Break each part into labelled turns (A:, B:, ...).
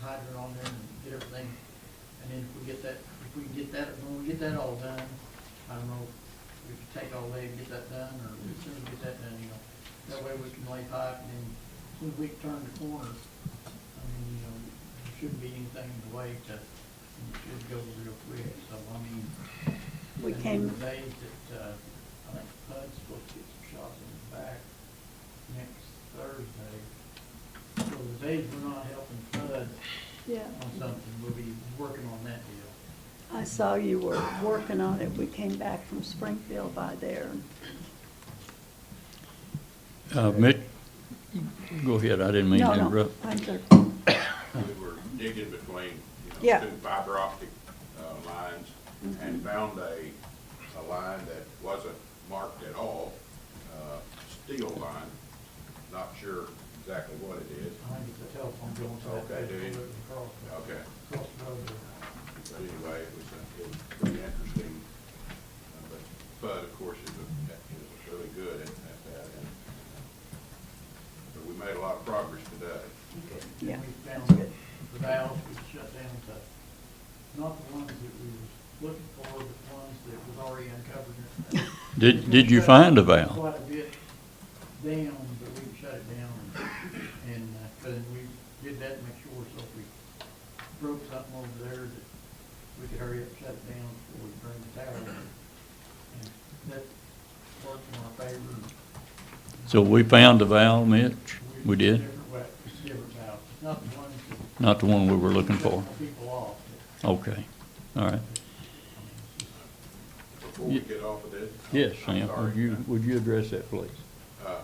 A: hydrant on there and get everything. And then if we get that, if we can get that, when we get that all done, I don't know, if we can take all day and get that done, or as soon as we get that done, you know. That way we can lay pipe and then as soon as we can turn the corner, I mean, you know, there shouldn't be anything in the way to, it should go real quick, so I mean.
B: We
A: and
B: came-
A: were Days that, uh, I think Bud's supposed to get some shots in the back next Thursday. So the days we're not helping Bud
B: Yeah,
A: on something, we'll be working on that deal.
B: I saw you were working on it. We came back from Springfield by there.
C: Uh, Mitch, go ahead, I didn't mean
B: No,
C: to
B: no,
C: interrupt.
B: I'm sorry.
D: we were digging between, you
B: Yeah.
D: know, two fiber optic uh, lines and found a, a line that wasn't marked at all, uh, steel line, not sure exactly what it is.
A: I think it's a telephone bill, so that
D: Okay, do
A: goes
D: you-
A: across,
D: Okay,
A: across the road. there.
D: but anyway, it was, a- it was pretty interesting. Uh, But Bud, of course, is, a- is really good at at that. and, uh, But we made a lot of progress today.
A: And
B: Yeah.
A: we found the valves we shut down to, not the ones that we were looking for, but the ones that was already uncovered.
C: Did, did you find a valve?
A: Quite a bit down, but we shut it down and, and, uh, but we did that to make sure, so if we broke something over there, that we could hurry up, shut it down before we bring the tower down. And that worked in our favor.
C: So we found the valve, Mitch? We did?
A: Different way, different valves, not the ones that
C: Not the one we were looking for?
A: set People off,
C: Okay, all right.
D: Before we
C: Ye-
D: get off of this.
C: Yes,
D: I'm
C: Sam,
D: sorry.
C: would you, would you address that, please?
D: Uh,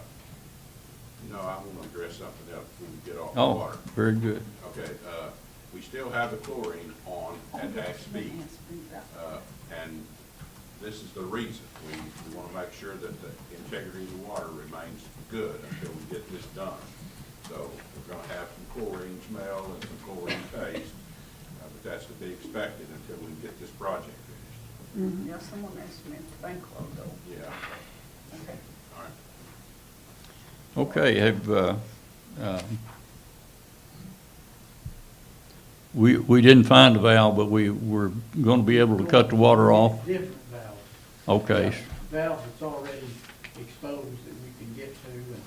D: No, I want to address something else before we get off the
C: Oh,
D: water.
C: very good.
D: Okay, uh, we still have the chlorine on at that speed. Uh, And this is the reason, we, we want to make sure that the integrity of the water remains good until we get this done. So we're going to have some chlorine smell and some chlorine taste, uh, but that's to be expected until we get this project finished.
B: Mm-hmm.
E: Now, someone asked me if the bank loan though.
D: Yeah,
E: Okay.
D: all right.
C: Okay, have, uh, um, we, we didn't find the valve, but we were gonna be able to cut the water off?
A: different valves.
C: Okay,
A: valves that's already exposed that we can get to, and,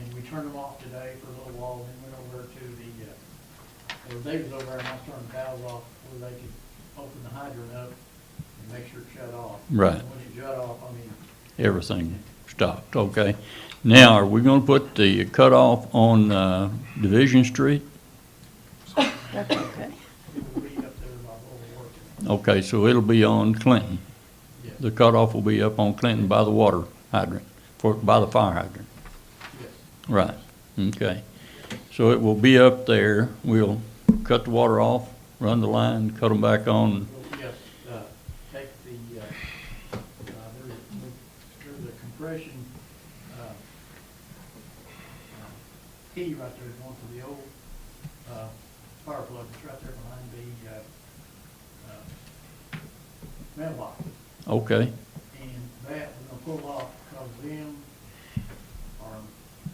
A: and we turned them off today for a little while, then went over to the, uh, or they was over there and I turned the valves off where they could open the hydrant up and make sure it shut off.
C: Right.
A: And When it shut off, I mean,
C: everything stopped, okay. Now, are we gonna put the cutoff on, uh, Division Street?
B: That's okay.
A: it would be up there by overworking.
C: Okay, so it'll be on Clinton.
A: Yes,
C: The cutoff will be up on Clinton by the water hydrant, for, by the fire hydrant.
A: yes.
C: Right, okay. So it will be up there. We'll cut the water off, run the line, cut them back on.
A: Well, Yes, uh, take the, uh, uh, there's, a- there's a compression, uh, uh, key right there going to the old, uh, fire plug, it's right there behind the, uh, uh, mailbox.
C: Okay,
A: And that, we're gonna pull off, cause them are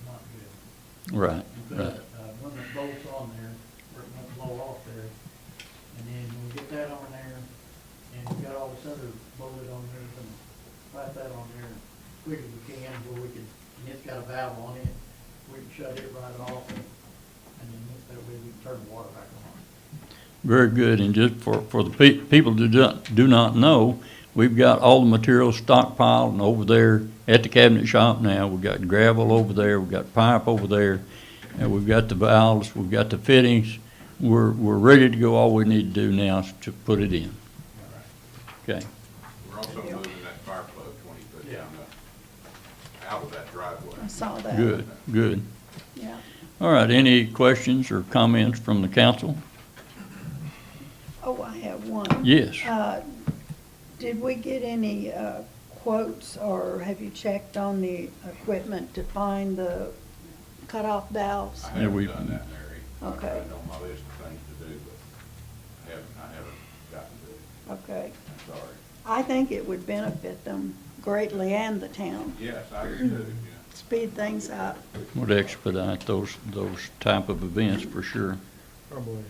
A: not good.
C: right,
A: We put a,
C: right.
A: uh, one that bolts on there, where it won't blow off there. And then we'll get that on there, and we got all this other bolted on there, and slap that on there as quick as we can, where we can, and it's got a valve on it, we can shut it right off, and and then that way we can turn the water back on.
C: Very good. And just for, for the pe- people who do not, do not know, we've got all the materials stockpiled and over there at the cabinet shop now. We've got gravel over there, we've got pipe over there, and we've got the valves, we've got the fittings. We're, we're ready to go. All we need to do now is to put it in. Okay.
D: We're also moving that fire plug twenty foot down the, out of that driveway.
B: I saw that.
C: Good, good.
B: Yeah.
C: All right, any questions or comments from the council?
B: Oh, I have one.
C: Yes.
B: Uh, Did we get any uh, quotes or have you checked on the equipment to find the cutoff valves?
D: I
C: Yeah, we-
D: haven't done that, Mary. I've got
B: Okay.
D: it on my list of things to do, but I haven't, I haven't gotten to it.
B: Okay.
D: I'm sorry.
B: I think it would benefit them greatly and the town.
D: Yes, I do, yeah.
B: Speed things up.
C: Would expedite those, those type of events for sure.
F: Probably.